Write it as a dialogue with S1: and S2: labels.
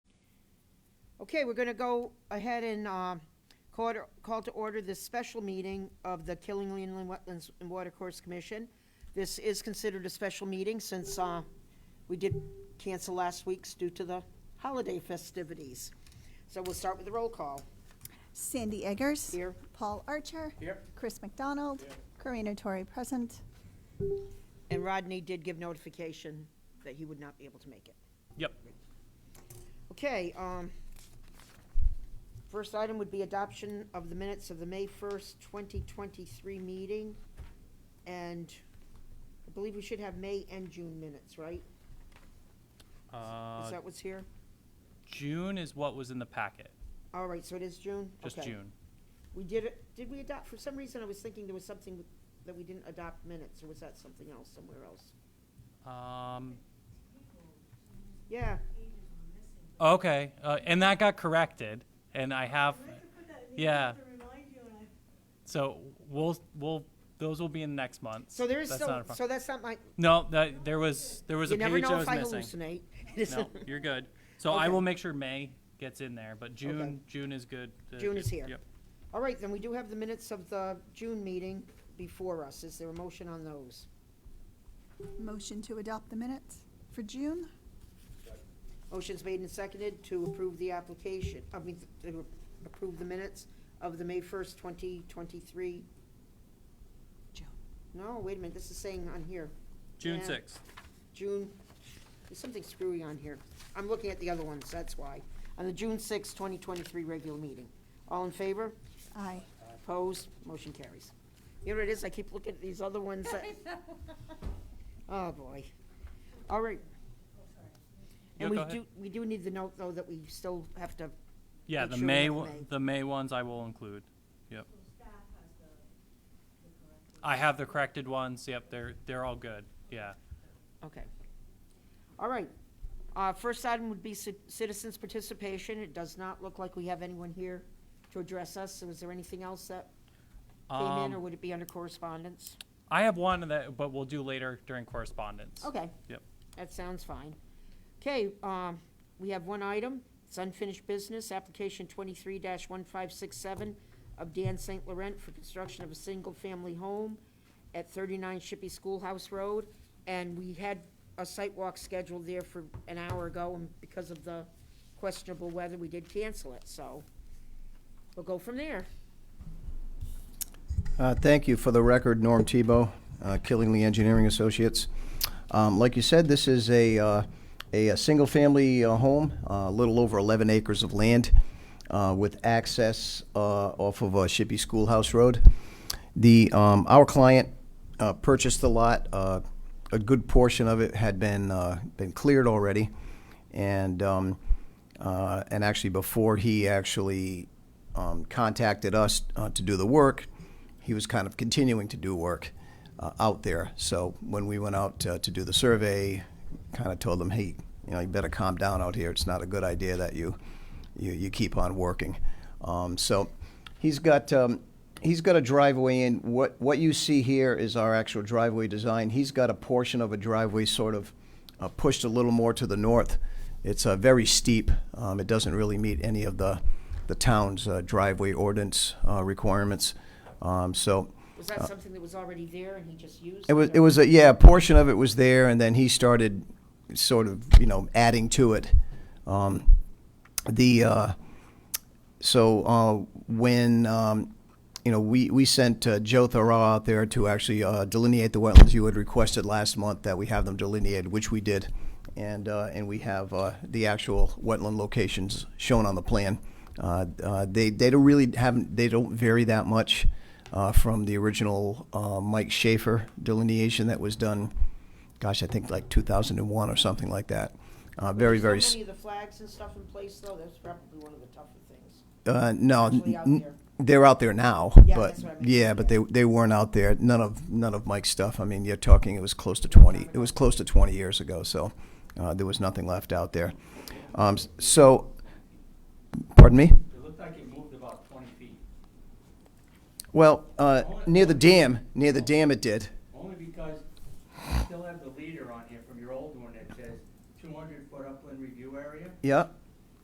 S1: Okay, we're gonna go ahead and, uh, call to, call to order this special meeting of the Killingley Inland Wetlands and Watercourse Commission. This is considered a special meeting since, uh, we did cancel last week's due to the holiday festivities. So we'll start with the roll call.
S2: Sandy Eggers.
S1: Here.
S2: Paul Archer.
S3: Here.
S2: Chris McDonald. Karina Torrey present.
S1: And Rodney did give notification that he would not be able to make it.
S3: Yep.
S1: Okay, um, first item would be adoption of the minutes of the May first, twenty twenty-three meeting. And I believe we should have May and June minutes, right?
S3: Uh,
S1: Is that what's here?
S3: June is what was in the packet,
S1: All right, so it is June?
S3: just
S1: Okay.
S3: June.
S1: We did, it. did we adopt, for some reason I was thinking there was something with- that we didn't adopt minutes, or was that something else, somewhere else?
S3: Um,
S1: Yeah,
S3: okay, uh, and that got corrected, and I have,
S4: I have to put that in the
S3: Yeah.
S4: email to remind you, and I
S3: so we'll, we'll, those will be in next month.
S1: so there is
S3: That's not
S1: still,
S3: a pro-
S1: so that's not my,
S3: No, that, there was, there was a
S1: you never
S3: page
S1: know
S3: I
S1: if
S3: was
S1: I
S3: missing.
S1: hallucinate.
S3: No, you're good. So I
S1: Okay.
S3: will make sure May gets in there, but June, June is good. Uh,
S1: June is
S3: good.
S1: here.
S3: Yep.
S1: All right, then we do have the minutes of the June meeting before us. Is there a motion on those?
S2: Motion to adopt the minutes for June.
S1: Motion's made and seconded to approve the application, I mean, to approve the minutes of the May first, twenty twenty-three.
S2: June.
S1: No, wait a minute, this is saying on here,
S3: June
S1: Yeah.
S3: sixth.
S1: June, there's something screwy on here. I'm looking at the other ones, that's why. On the June sixth, twenty twenty-three regular meeting. All in favor?
S2: Aye.
S1: Opposed, motion carries. You know what it is, I keep looking at these other ones that. Oh, boy. All right.
S3: Yeah,
S1: And we
S3: go ahead.
S1: do, we do need to note, though, that we still have to,
S3: Yeah,
S1: Make
S3: the
S1: sure we
S3: May,
S1: have
S3: one-
S1: May.
S3: the May ones I will include, yep. I have the corrected ones, yep, they're, they're all good, yeah.
S1: okay. All right. Uh, first item would be ci- citizens' participation. It does not look like we have anyone here to address us. So is there anything else that came in,
S3: Um,
S1: or would it be under correspondence?
S3: I have one that, but we'll do later during correspondence.
S1: Okay.
S3: Yep.
S1: That sounds fine. Okay, um, we have one item, it's unfinished business, application twenty-three one five six seven of Dan St. Laurent for construction of a single-family home at thirty-nine Shippey Schoolhouse Road. And we had a site walk scheduled there for an hour ago, and because of the questionable weather, we did cancel it, so we'll go from there.
S5: Uh, Thank you. For the record, Norm Tebow, uh, Killingley Engineering Associates. Um, Like you said, this is a, uh, a a single-family uh, home, uh, a little over 11 acres of land uh, with access uh, off of uh, Shippey Schoolhouse Road. The, um, our client uh, purchased the lot. uh, A good portion of it had been, uh, been cleared already. And, um, uh, and actually, before he actually um, contacted us uh, to do the work, he was kind of continuing to do work uh, out there. So when we went out uh, to do the survey, kind of told him, hey, you know, you better calm down out here. It's not a good idea that you you, you keep on working. Um, so he's got um, he's got a driveway in. What what you see here is our actual driveway design. He's got a portion of a driveway sort of uh, pushed a little more to the north. It's uh, very steep. Um, it doesn't really meet any of the the town's uh, driveway ordinance uh, requirements. Um, so
S1: Was that something that was already there and he just used?
S5: it was it was a yeah a portion of it was there, and then he started sort of you know adding to it. Um, the uh, so uh, when um, you know we we sent uh, Joe Thoreau out there to actually uh, delineate the wetlands you had requested last month that we have them delineated, which we did, and uh, and we have uh, the actual wetland locations shown on the plan. Uh, uh, they they don't really haven't they don't vary that much uh, from the original uh, Mike Schaefer delineation that was done. Gosh, I think like 2001 or something like that. Uh, very very.
S1: So
S5: s-
S1: many of the flags and stuff in place, though, that's probably one of the tougher things.
S5: Uh, no,
S1: actually out
S5: n-
S1: there.
S5: they're out there now,
S1: Yeah,
S5: but
S1: that's what I mean,
S5: yeah, but they they weren't out there. None of none of Mike's stuff. I mean, you're talking. It was close to twenty. It was close to twenty years ago. So uh, there was nothing left out there. Um, s- so, pardon me.
S6: It looked like it moved about twenty feet,
S5: Well, uh, near the dam, near the dam, it did.
S6: only because you still have the leader on here from your old one that says two hundred foot upland review area.
S5: Yeah,